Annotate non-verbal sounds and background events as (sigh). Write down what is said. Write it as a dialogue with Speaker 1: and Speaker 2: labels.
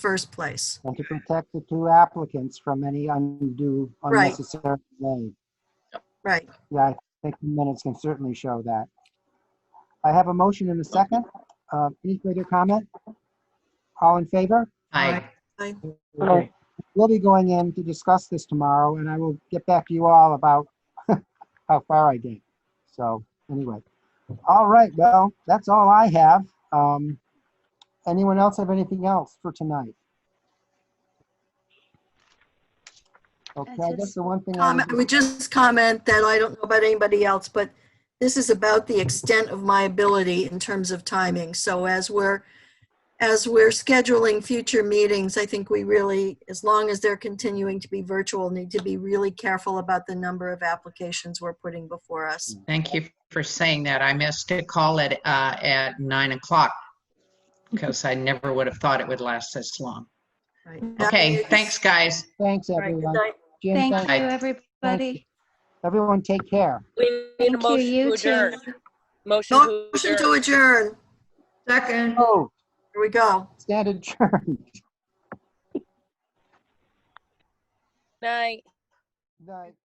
Speaker 1: first place.
Speaker 2: and to protect the two applicants from any undue
Speaker 1: Right.
Speaker 2: unnecessary delay.
Speaker 1: Right.
Speaker 2: Yeah, I think the minutes can certainly show that. I have a motion and a second. Uh, Any further comment? All in favor?
Speaker 3: Aye.
Speaker 2: Aye. We'll be going in to discuss this tomorrow, and I will get back to you all about (laughs) how far I get. So, anyway. All right, well, that's all I have. Um, Anyone else have anything else for tonight? Okay, I guess the one thing. I
Speaker 1: Comment, I would just comment that I don't know about anybody else, but this is about the extent of my ability in terms of timing. So as we're, as we're scheduling future meetings, I think we really, as long as they're continuing to be virtual, need to be really careful about the number of applications we're putting before us.
Speaker 3: Thank you for saying that. I missed a call at, uh, at nine o'clock because I never would have thought it would last this long.
Speaker 1: Right.
Speaker 3: Okay, thanks, guys.
Speaker 2: Thanks,
Speaker 1: Right, good
Speaker 2: everyone.
Speaker 1: night.
Speaker 2: Jim,
Speaker 4: Thank
Speaker 2: thank-
Speaker 4: you, everybody.
Speaker 2: everyone take care.
Speaker 5: We need a
Speaker 4: Thank you,
Speaker 5: motion to
Speaker 4: you too.
Speaker 5: adjourn. Motion to
Speaker 1: Motion to
Speaker 5: adjourn.
Speaker 1: adjourn.
Speaker 6: Second.
Speaker 2: Oh,
Speaker 1: Here we go.
Speaker 2: stand (laughs) adjourned.
Speaker 5: Night.
Speaker 2: Night.